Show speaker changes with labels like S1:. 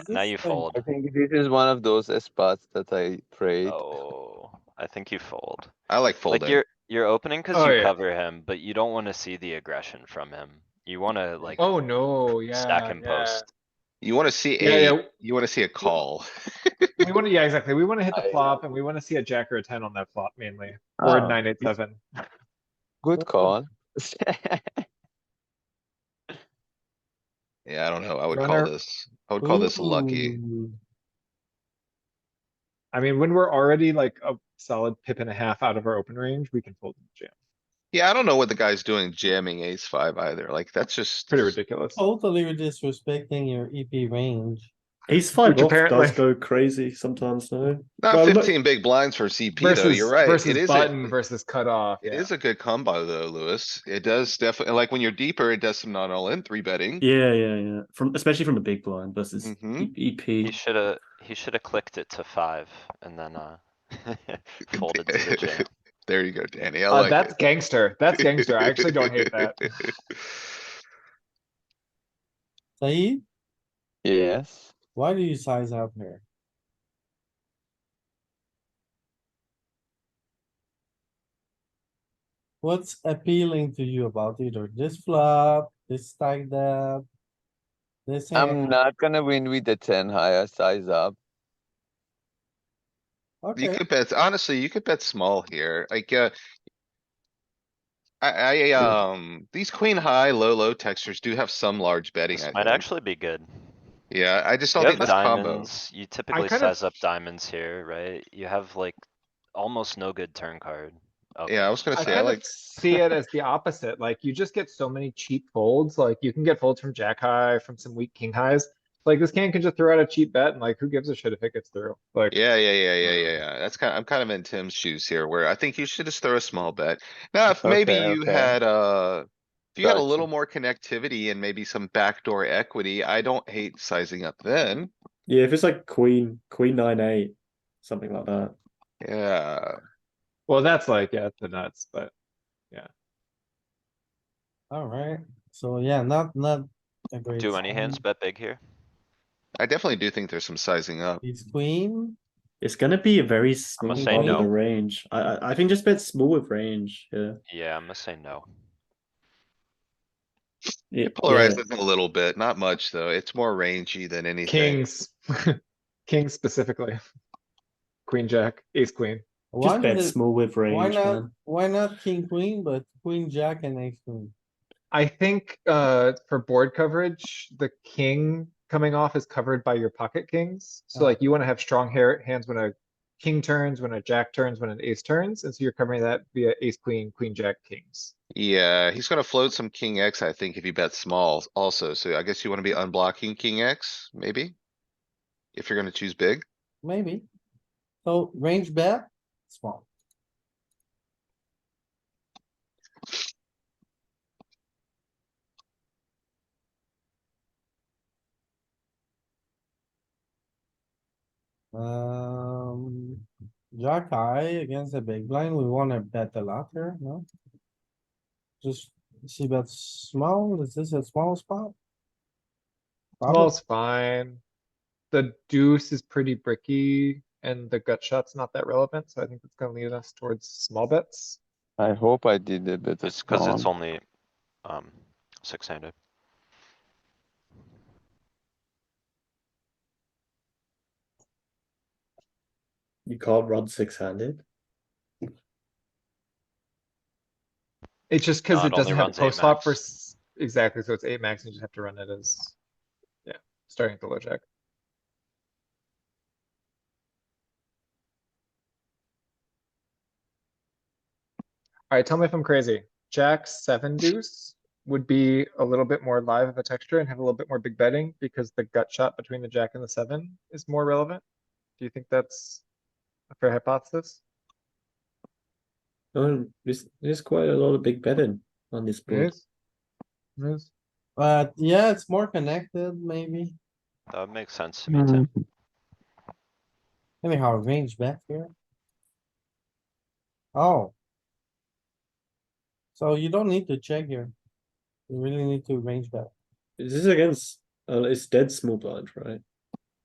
S1: Now you fold.
S2: I think this is one of those spots that I prayed.
S1: Oh, I think you fold.
S3: I like
S1: Like
S3: folding.
S1: you're, you're opening cuz
S4: Oh,
S1: you
S4: yeah.
S1: cover him, but you don't wanna see the aggression from him. You wanna like
S4: Oh, no, yeah.
S1: stack him
S4: yeah.
S1: post.
S3: You wanna see
S4: Yeah, yeah.
S3: a, you wanna see a call.
S4: We wanna, yeah, exactly. We wanna hit the
S2: I-
S4: flop and we wanna see a jack or a ten on that flop mainly, or
S5: Oh.
S4: a nine, eight, seven.
S2: Good call.
S3: Yeah, I don't know. I would call
S4: Runner.
S3: this, I would call this lucky.
S4: Ooh. I mean, when we're already like a solid pip and a half out of our open range, we can fold and jam.
S3: Yeah, I don't know what the guy's doing jamming ace five either. Like, that's just.
S4: Pretty ridiculous.
S5: Oh,
S6: Totally disrespecting your EP range.
S5: Ace five
S4: Which
S5: off
S4: apparently-
S5: does go crazy sometimes, no?
S3: Not
S5: Well, look-
S3: fifteen big blinds for CP though.
S4: Versus,
S3: You're right. It
S4: versus
S3: is,
S4: button
S3: a-
S4: versus cutoff,
S3: it
S4: yeah.
S3: is a good combo though, Lewis. It does definitely, like when you're deeper, it does some not all in three betting.
S5: Yeah, yeah, yeah. From especially from a big blind versus
S3: Mhm.
S5: E-
S1: He
S5: EP.
S1: shoulda, he shoulda clicked it to five and then, uh, folded to the jam.
S3: There you go, Danny. I
S4: Uh,
S3: like
S4: that's
S3: it.
S4: gangster. That's gangster. I actually don't hate that.
S6: Saeed,
S2: Yes,
S6: why do you size up here? What's appealing to you about either this flop, this stack dab? This
S2: I'm
S6: hand,
S2: not gonna win with the ten higher size up.
S3: You
S6: okay,
S3: could bet, honestly, you could bet small here, like, uh. I, I, um, these queen high, low, low textures do have some large betting,
S1: This
S3: I
S1: might
S3: think.
S1: actually be good.
S3: Yeah, I just
S1: You
S3: don't think
S1: have
S3: this combo.
S1: diamonds, you typically
S4: kind of-
S1: size up diamonds here, right? You have like almost no good turn card. Oh. Okay.
S3: Yeah, I was gonna
S4: I
S3: say, I
S4: kind of
S3: like,
S4: see it as the opposite, like you just get so many cheap folds, like you can get folds from jack high, from some weak king highs. Like this can can just throw out a cheap bet and like who gives a shit if it gets through, like.
S3: yeah, yeah, yeah, yeah, yeah,
S1: Hmm.
S3: yeah. That's kind, I'm kind of in Tim's shoes here, where I think you should just throw a small bet. Now, if maybe
S2: Okay,
S3: you
S2: okay.
S3: had, uh. If you had a
S2: Gotcha.
S3: little more connectivity and maybe some backdoor equity, I don't hate sizing up then.
S5: Yeah, if it's like queen, queen nine eight, something like that.
S3: Yeah,
S4: Well, that's like, yeah, the nuts, but.
S6: alright, so yeah, not, not. a great
S1: Do any hands
S6: sign.
S1: bet big here?
S3: I definitely do think there's some sizing up.
S6: He's queen,
S5: It's gonna be a very small
S1: say
S5: part of
S1: no.
S5: the range. I, I I think just bet small with range. Yeah.
S1: Yeah, I'm gonna say no.
S5: yeah
S3: Polarized
S5: yeah.
S3: it a little bit, not much though. It's more rangy than anything.
S4: Kings, kings specifically. Queen, jack, ace, queen.
S6: why,
S5: Just bet
S6: did-
S5: small with
S6: why
S5: range,
S6: not,
S5: man.
S6: why not king, queen, but queen, jack and ace queen?
S4: I think, uh, for board coverage, the king coming off is covered by your pocket kings. So
S6: Oh.
S4: like you wanna have strong hair, hands when a king turns, when a jack turns, when an ace turns, and so you're covering that via ace, queen, queen, jack, kings.
S3: Yeah, he's gonna float some king X, I think, if you bet small also. So I guess you wanna be unblocking king X, maybe? If you're gonna choose big.
S6: Maybe. So range bet, small. Um, jack high against the big blind, we wanna bet a lot here, no? Just see bet small, is this a small spot? Probably,
S4: Small's fine. The deuce is pretty bricky and the gut shot's not that relevant, so I think it's gonna lead us towards small bets.
S2: I hope I did a better
S1: It's cuz it's
S2: small.
S1: only, um, six handed.
S5: You can't run six handed.
S4: It's just cuz
S1: No,
S4: it
S1: it only
S4: doesn't have a
S1: runs eight
S4: post flop for,
S1: max.
S4: s- exactly, so it's eight max and you just have to run it as. Yeah, starting at the low jack. Alright, tell me if I'm crazy. Jack seven deuce would be a little bit more live of a texture and have a little bit more big betting because the gut shot between the jack and the seven is more relevant. Do you think that's a fair hypothesis?
S5: No, there's, there's quite a lot of big betting on this
S4: It
S5: board.
S4: is? It is?
S6: but yeah, it's more connected maybe.
S1: That would make sense to me, Tim.
S6: Anyhow, range bet here. Oh. So you don't need to check here. You really need to range bet.
S5: This is against uh, it's dead small blind, right?